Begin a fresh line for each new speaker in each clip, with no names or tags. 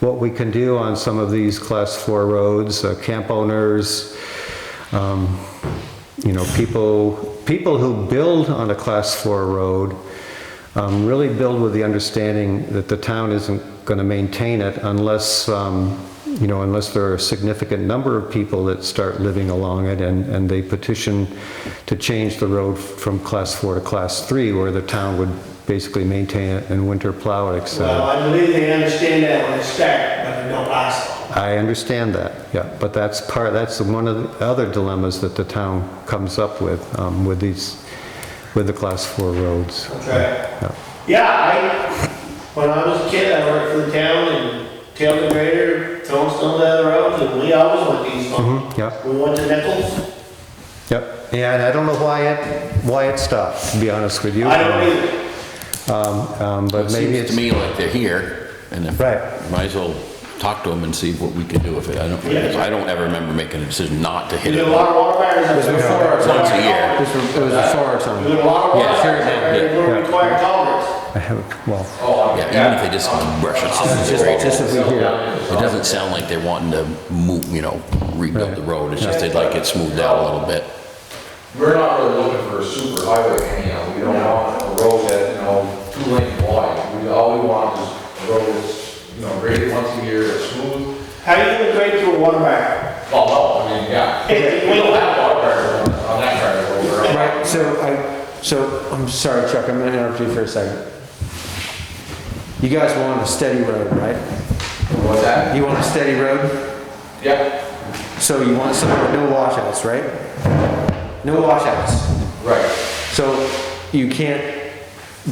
what we can do on some of these class four roads, uh, camp owners, um, you know, people, people who build on a class four road um, really build with the understanding that the town isn't going to maintain it unless, um, you know, unless there are a significant number of people that start living along it and, and they petition to change the road from class four to class three, where the town would basically maintain it and winter plow it, et cetera.
Well, I believe they understand that when they start, but they don't last long.
I understand that, yeah, but that's part, that's one of the other dilemmas that the town comes up with, um, with these, with the class four roads.
Okay.
Yeah.
Yeah, I, when I was a kid, I worked for the town and tailed the grader, throwing snow down the roads, and we always went east on.
Mhm, yeah.
We went to Nichols.
Yep, and I don't know why it, why it stopped, to be honest with you.
I don't either.
Um, um,
It
But maybe
seems
it's,
to me like they're here, and if,
Right.
might as well talk to them and see what we can do with it. I don't,
Yeah.
I don't ever remember making a decision not to hit
We did a
it.
lot of water fires up there.
before our
Once a year.
It was before or
We
something.
did a lot of water
Yeah,
fires up
sure,
there,
yeah,
and we
yeah.
required culverts.
I have, well,
Yeah, even if they just brush it,
Just, just if we hear.
it doesn't sound like they're wanting to move, you know, rebuild the
Right.
road. It's just they'd like it smoothed out a little bit.
We're not really looking for a super highway anyhow, we don't want a road that, you know, two lane wide. We, all we want is a road that's, you know, graded once a year, that's smooth.
How do you even grade through a water fire?
Well, no, I mean, yeah.
Hey,
We don't have water barriers on, on that part of the road. We're-
Right, so I, so, I'm sorry, Chuck, I'm gonna interrupt you for a second. You guys want a steady road, right?
What's that?
You want a steady road,
Yeah,
so you want some, no washouts, right? No washouts.
right.
So you can't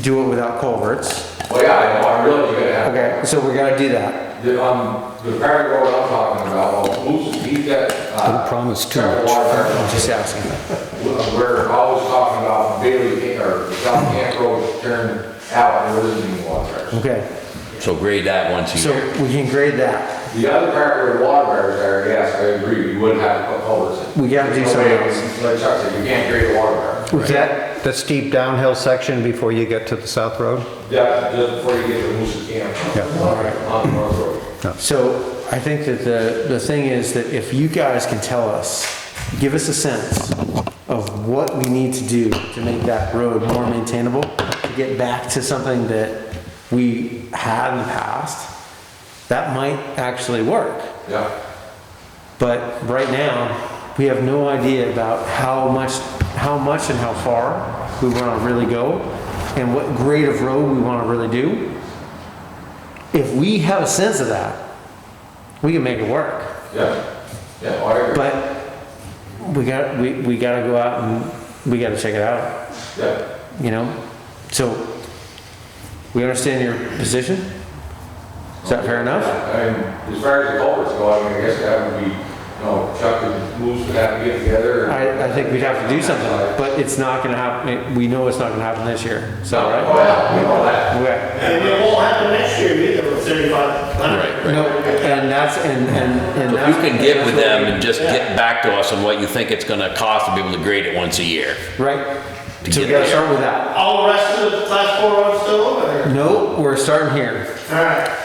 do it without culverts.
Well, yeah, I know, I really do that.
Okay, so we're gonna do that.
The, um, the part of the road I'm talking about, well, Lucy, he got, uh.
Don't promise too
several
much.
water barriers.
I'm just asking.
We're always talking about Bailey, or South Camp Road turn out, and there isn't any water barriers.
Okay,
So grade that once a
so
year.
we can grade that.
The other part where the water barriers are, yes, I agree, you would have to put culverts in.
We gotta do
There's no
something
way,
else.
Like Chuck said, you can't grade a water barrier.
Was that,
the steep downhill section before you get to the south road?
Yeah, just before you get to Moose Camp.
Yeah.
On North Road.
So I think that the, the thing is that if you guys can tell us, give us a sense of what we need to do to make that road more maintainable, to get back to something that we had in the past, that might actually work.
Yeah,
But right now, we have no idea about how much, how much and how far we want to really go and what grade of road we want to really do. If we have a sense of that, we can make it work.
yeah, yeah, well, I agree,
But we got, we, we got to go out and we got to check it out,
yeah.
you know? So we understand your position? Is that fair enough?
I mean, as far as the culverts go, I mean, I guess that would be, you know, Chuck and Moose would have to get together. and-
I, I think we'd have to do something, but it's not gonna happen, we know it's not gonna happen this year, so,
Oh,
right?
yeah, we know that.
Okay.
And it won't happen next year either with thirty-five hundred.
Right,
No,
right.
and that's, and, and, and
If
that's.
you can get with them and just
Yeah.
get back to us on what you think it's gonna cost to be able to grade it once a year.
Right,
to
so we
get
gotta
there.
start with that.
All the rest of the class four roads still over there?
No, we're starting here.
All right.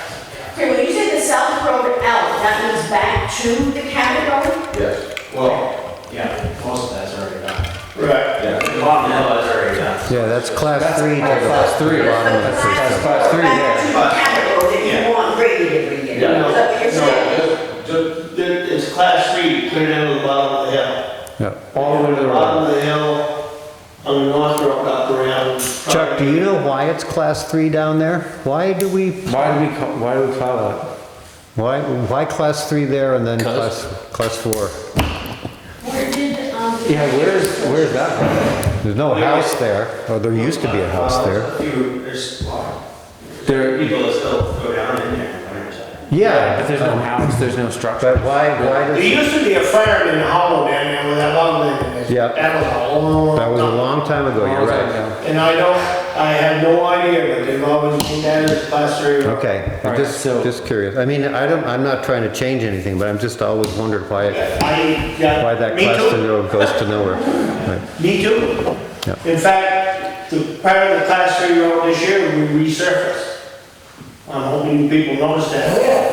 Okay, when you say the South Road out, that means back to the Cabot Road?
Yes, well,
Yeah, most of that's already done.
Right.
yeah,
The bottom hill is already done.
Yeah, that's class three to the.
Class three.
bottom of that first
That's
class three,
Back to the Cabot Road, that
Yeah.
you want graded every year.
Yeah.
Is that what you're saying?
no, just, just
There- It's class three, clear down to the bottom of the hill.
Yeah.
All the way to the road.
Bottom of the hill, on the north road up around.
Chuck, do you know why it's class three down there? Why do we,
Why do we, ca- why do we call that?
why, why class three there and then
'Cause.
class, class four?
Where did, um,
Yeah, where's, where's that from?
There's no house there, or there used to be a house there.
uh,
Well, there's a few- There's a lot of
There,
people that still go down in there on the winter side.
Yeah,
but there's no house, there's no structure.
But why, why
There
does,
used to be a fire in the hollow down there with that long thing.
Yeah.
That was a long.
that was a long time ago, you're right.
And I don't, I have no idea, but they've always been down as class three road.
Okay,
All right,
just,
so-
just curious. I mean, I don't, I'm not trying to change anything, but I'm just always wondered why, it-
I got.
why that
me
class
too.
three road goes to nowhere. Right,
Me too.
Yeah.
In fact, the part of the class three road this year, we resurfaced. I'm hoping people notice that.